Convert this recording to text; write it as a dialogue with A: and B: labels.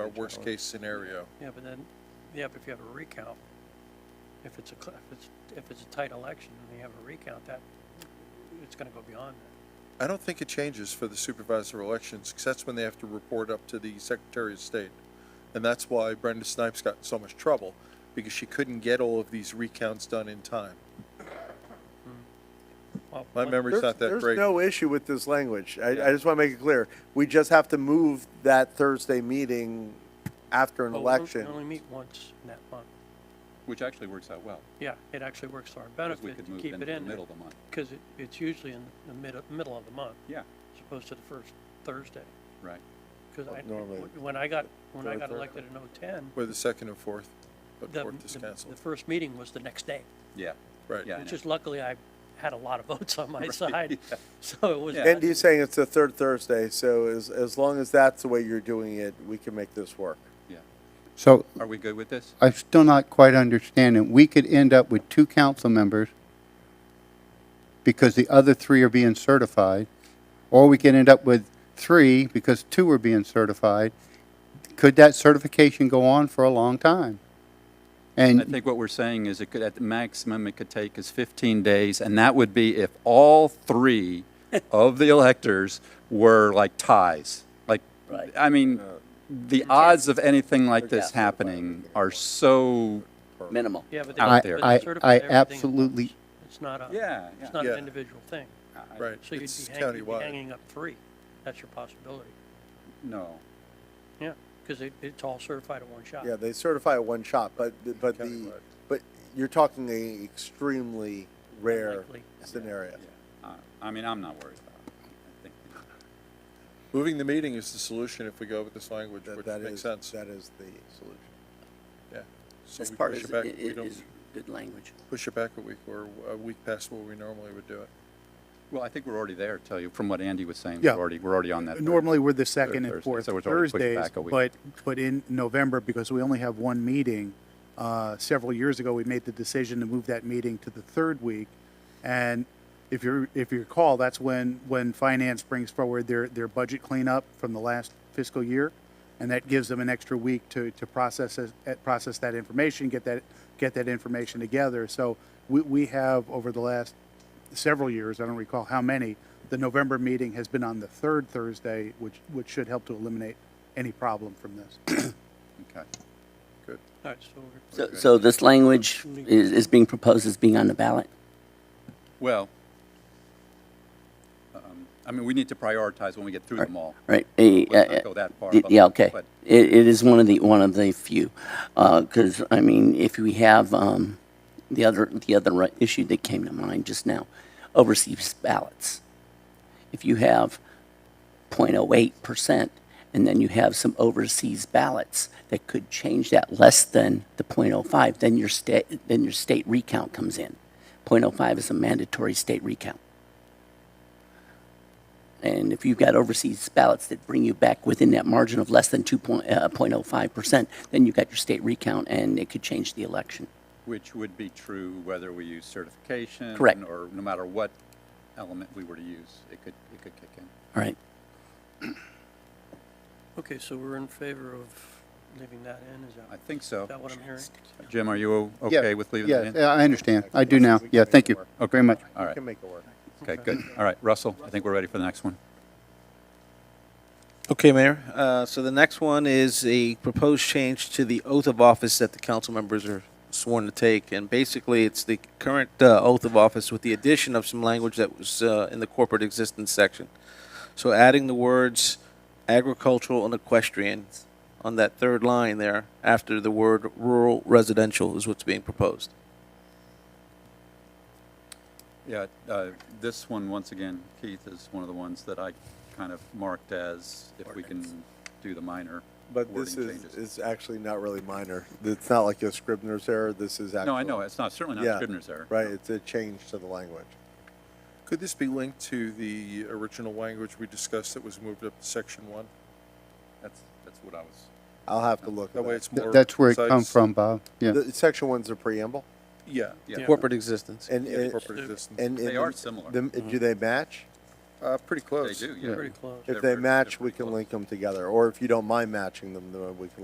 A: Our worst-case scenario.
B: Yeah, but then, yeah, but if you have a recount, if it's a, cl- if it's, if it's a tight election and you have a recount, that, it's gonna go beyond that.
A: I don't think it changes for the supervisor elections, 'cause that's when they have to report up to the Secretary of State. And that's why Brenda Snipes got in so much trouble, because she couldn't get all of these recounts done in time.
B: Well,
A: My
B: one-
A: memory's not that
C: There's-
A: great.
C: There's no issue with this language. I, I just want to make it clear. We just have to move that Thursday meeting after an
B: oh, well, we only-
C: election.
B: We only meet once in that month.
D: Which actually works out well,
B: Yeah, it actually works to our
D: because we
B: benefit
D: could
B: to
D: move
B: keep
D: into
B: it
D: the
B: in there.
D: middle of the month.
B: Cause it, it's usually in the mid, middle of the month,
D: Yeah,
B: as opposed to the first Thursday.
D: right.
B: Cause I,
C: Normally-
B: w- when I got, when I
C: Third
B: got
C: Thursday.
B: elected in oh-ten,
A: We're the second and fourth, but
B: the,
A: fourth is
B: the, the
A: canceled.
B: first meeting was the next day.
D: Yeah.
A: Right.
D: Yeah, I
B: Which
D: know.
B: is luckily I had a lot of votes on my side, so it was.
D: Yeah.
C: Andy's saying it's the third Thursday, so as, as long as that's the way you're doing it, we can make this work.
D: Yeah.
E: So
D: Are we good with this?
E: I'm still not quite understanding. We could end up with two council members because the other three are being certified, or we could end up with three because two are being certified. Could that certification go on for a long time?
D: I
E: And
D: think what we're saying is it could, at the maximum, it could take is 15 days, and that would be if all three of the electors were like ties. Like, I mean, the odds of anything like this happening are so,
F: minimal.
B: Yeah, but they.
D: out
E: I,
B: but
D: there.
B: they
E: I,
B: certify
E: I
B: everything at once.
E: absolutely,
B: It's not a.
D: yeah.
B: It's not
A: Yeah.
B: an individual thing.
A: Right,
B: So you'd
A: it's
B: be hanging, you'd be
A: countywide.
B: hanging up three. That's your possibility.
D: No.
B: Yeah, because it, it's all certified at one shot.
C: Yeah, they certify at one shot, but, but the,
A: Countywide.
C: but you're talking a extremely rare
B: Unlikely.
C: scenario.
D: Uh, I mean, I'm not worried about it. I think
A: Moving the meeting is the solution if we go with this language,
C: That,
A: which
C: that
A: makes
C: is,
A: sense.
C: that is the solution.
A: Yeah. So
F: This
A: we
F: part
A: push
F: is,
A: it back,
F: i- i-
A: we don't,
F: is good language.
A: push it back a week or a week past where we normally would do it.
D: Well, I think we're already there, tell you, from what Andy was saying.
G: Yeah.
D: We're already, we're already on that. third-
G: Normally, we're the second and
D: Thursday,
G: fourth
D: so it's already pushed
G: Thursdays,
D: back a week.
G: but, but in November, because we only have one meeting, uh, several years ago, we made the decision to move that meeting to the third week. And if you, if you recall, that's when, when finance brings forward their, their budget cleanup from the last fiscal year. And that gives them an extra week to, to process, it- eh, process that information, get that, get that information together. So we, we have, over the last several years, I don't recall how many, the November meeting has been on the third Thursday, which, which should help to eliminate any problem from this.
D: Okay.
A: Good.
B: All right, so we're-
F: So, so this language is, is being proposed as being on the ballot?
D: Well, um, I mean, we need to prioritize when we get through them all.
F: Right. eh,
D: Let's not
F: eh,
D: go that far
F: eh,
D: above
F: Yeah,
D: it,
F: okay.
D: but-
F: It, it is one of the, one of the few. Because, I mean, if we have um, the other, the other ri- issue that came to mind just now, overseas ballots. If you have 0.08%, and then you have some overseas ballots that could change that less than the .05, then your state, then your state recount comes in. .05 is a mandatory state recount. And if you've got overseas ballots that bring you back within that margin of less than uh, 2.05%, then you've got your state recount, and it could change the election.
D: Which would be true whether we use certification.
F: Correct.
D: Or no matter what element we were to use, it could, it could kick in.
F: All right?
B: okay, so we're in favor of leaving that in, is
D: I
B: that,
D: think
B: is that
D: so.
B: what I'm hearing?
D: Jim, are you o-
E: Yeah,
D: okay with leaving
E: yeah,
D: that in?
E: yeah, I understand. I do now. Yeah, thank you very much.
D: All
C: We
D: right,
C: can make it work.
D: okay, good. All right, Russell, I think we're ready for the next one.
H: Okay, Mayor. Uh, So the next one is a proposed change to the oath of office that the council members are sworn to take. And basically, it's the current uh, oath of office with the addition of some language that was uh, in the corporate existence section. So adding the words agricultural and equestrian on that third line there after the word rural residential is what's being proposed.
D: Yeah, uh, this one, once again, Keith, is one of the ones that I kind of marked as if we can do the minor
C: But this
D: wording
C: is,
D: changes.
C: is actually not really minor. It's not like a Scribner's error. This is actually.
D: No, I know, it's not, certainly
C: Yeah.
D: not Scribner's error.
C: Right, it's a change to the language.
A: Could this be linked to the original language we discussed that was moved up to section one?
D: That's, that's what I was
C: I'll have to look
A: That
C: at
A: way
C: that.
A: it's
E: Th-
A: more.
E: That's where it come
A: concise.
E: from, Bob. Yeah.
C: The, section one's a preamble
A: Yeah.
D: Yeah.
H: Corporate existence.
C: and,
A: Yeah,
C: and,
A: corporate existence.
C: and.
D: They
C: and
D: are similar.
C: the- Do they match?
A: Uh, pretty close.
D: They do, yeah.
B: pretty close.
C: If they match, we can link them together, or if you don't mind matching them, then we can